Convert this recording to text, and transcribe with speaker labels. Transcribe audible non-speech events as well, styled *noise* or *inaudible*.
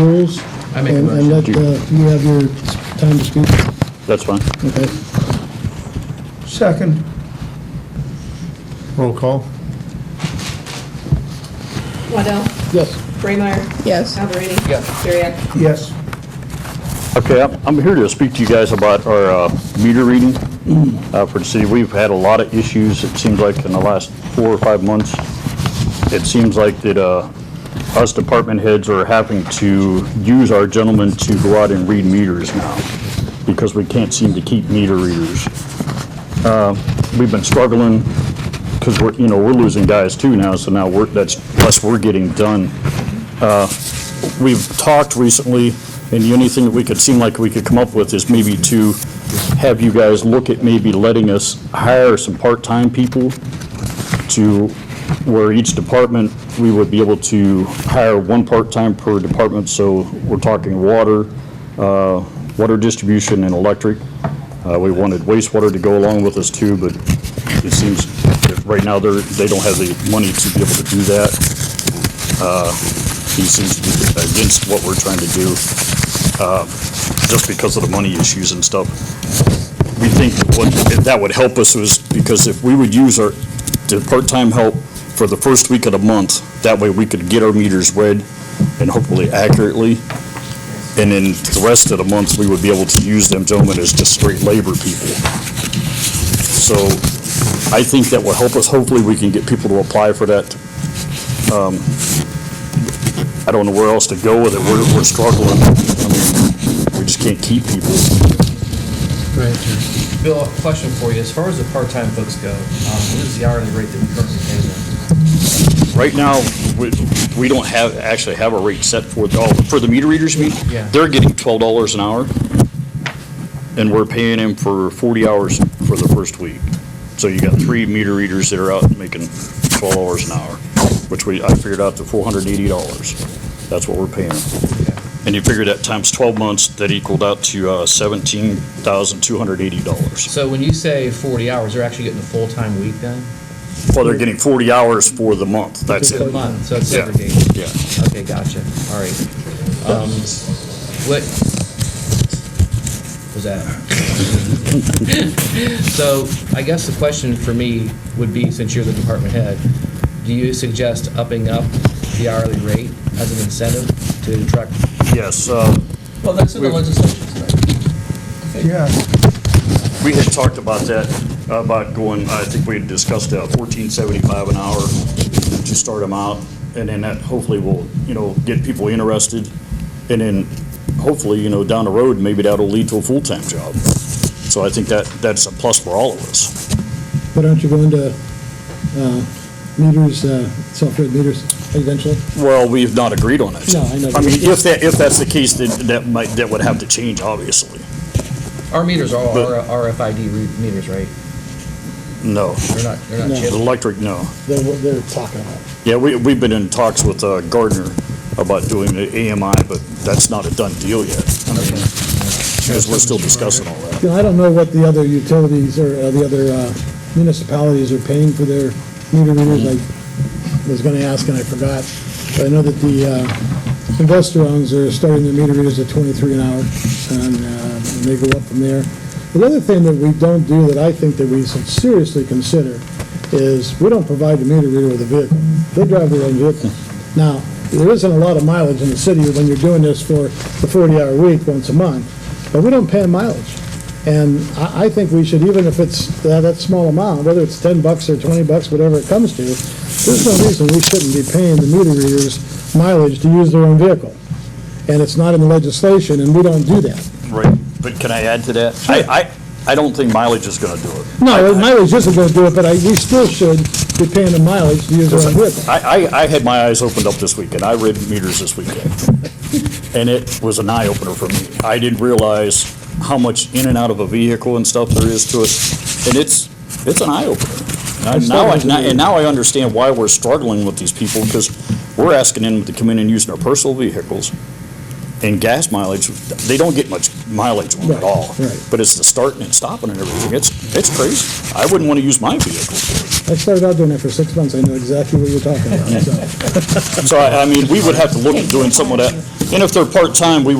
Speaker 1: rules?
Speaker 2: I make a
Speaker 1: and- And let,
Speaker 2: motion.
Speaker 1: uh, you have your time to speak.
Speaker 3: That's fine.
Speaker 1: Okay.
Speaker 4: Second.
Speaker 5: Roll call?
Speaker 6: Waddell?
Speaker 1: Yes.
Speaker 6: Braymire?
Speaker 7: Yes.
Speaker 6: Alberini?
Speaker 2: Yes.
Speaker 6: Dariak?
Speaker 4: Yes.
Speaker 3: Okay, I'm I'm here to speak to you guys about our uh, meter reading uh, for the city. We've had a lot of issues, it seems like, in the last four or five months. It seems like that uh, us department heads are having to use our gentlemen to go out and read meters now because we can't seem to keep meter readers. Uh, We've been struggling because we're, you know, we're losing guys too now, so now we're, that's less we're getting done. we've talked recently, and the only thing that we could seem like we could come up with is maybe to have you guys look at maybe letting us hire some part-time people to, where each department, we would be able to hire one part-time per department, so we're talking water, uh, water distribution and electric. Uh, We wanted wastewater to go along with us too, but it seems that right now they're, they don't have the money to be able to do that he seems to be against what we're trying to do, uh, just because of the money issues and stuff. We think what, that would help us was, because if we would use our, the part-time help for the first week of the month, that way we could get our meters read and hopefully accurately. And then the rest of the month, we would be able to use them gentlemen as just straight labor people. So I think that will help us. Hopefully, we can get people to apply for that I don't know where else to go with it. We're, we're struggling. I mean, we just can't keep people.
Speaker 2: Bill, a question for you. As far as the part-time folks go, um, what is the hourly rate that we currently pay them?
Speaker 3: Right now, we, we don't have, actually have a rate set for, the- oh, for the meter readers, you mean?
Speaker 2: Yeah.
Speaker 3: They're getting twelve dollars an hour, and we're paying them for forty hours for the first week. So you got three meter readers that are out making twelve dollars an hour, which we, I figured out to four hundred and eighty dollars. That's what we're paying them. And you figure that times twelve months, that equaled out to, uh, seventeen thousand two hundred eighty dollars.
Speaker 2: So when you say 40 hours, they're actually getting a full-time week then?
Speaker 3: Well, they're getting 40 hours for the month, that's
Speaker 2: For the
Speaker 3: it.
Speaker 2: month, so it's
Speaker 3: Yeah.
Speaker 2: segregated.
Speaker 3: Yeah.
Speaker 2: Okay, gotcha. All right. Um, What was that? *laughs* So I guess the question for me would be, since you're the department head, do you suggest upping up the hourly rate as an incentive to attract?
Speaker 3: Yes, uh,
Speaker 2: Well, that's
Speaker 3: in the
Speaker 2: legislation
Speaker 4: Yeah.
Speaker 3: we had talked about that, about going, I think we had discussed uh, 1475 an hour to start them out, and then that hopefully will, you know, get people interested, and then hopefully, you know, down the road, maybe that'll lead to a full-time job. So I think that, that's a plus for all of us.
Speaker 1: But aren't you going to uh, meters, uh, self-read meters eventually?
Speaker 3: Well, we've not agreed on it.
Speaker 1: No, I know.
Speaker 3: I mean, if that, if that's the case, then that might, that would have to change, obviously.
Speaker 2: Our meters are all
Speaker 3: But-
Speaker 2: RFID re- meters, right?
Speaker 3: No,
Speaker 2: They're not, they're not
Speaker 1: No.
Speaker 2: chipped.
Speaker 3: electric, no.
Speaker 1: They're, they're talking about.
Speaker 3: Yeah, we, we've been in talks with uh, Gardner about doing the AMI, but that's not a done deal yet. Because we're still discussing all that.
Speaker 1: You know, I don't know what the other utilities or uh, the other uh, municipalities are paying for their meter readers. I was going to ask and I forgot. But I know that the uh, investor-owns are starting their meter readers at 23 an hour, and uh, they go up from there. The other thing that we don't do that I think that we should seriously consider is, we don't provide the meter reader with a vehicle. They drive their own vehicle. Now, there isn't a lot of mileage in the city when you're doing this for the 40-hour week once a month, but we don't pay 'em mileage. And I, I think we should, even if it's that, that small amount, whether it's ten bucks or twenty bucks, whatever it comes to, there's no reason we shouldn't be paying the meter readers mileage to use their own vehicle. And it's not in the legislation, and we don't do that.
Speaker 3: Right, but can I add to that? I, I, I don't think mileage is gonna do it.
Speaker 1: No, mileage isn't gonna do it, but I, we still should be paying the mileage to use our own vehicle.
Speaker 3: I, I, I had my eyes opened up this weekend. I read meters this weekend. And it was an eye-opener for me. I didn't realize how much in and out of a vehicle and stuff there is to it. And it's, it's an eye-opener. And Now, I- now- and now I understand why we're struggling with these people, because we're asking them to come in and use their personal vehicles And gas mileage, they don't get much mileage on it at all.
Speaker 1: Right, right.
Speaker 3: But it's the starting and stopping and everything. It's, it's crazy. I wouldn't want to use my vehicle.
Speaker 1: I started out doing it for six months, I know exactly what you're talking about, so.
Speaker 3: So I, I mean, we would have to look at doing some of that. And if they're part-time, we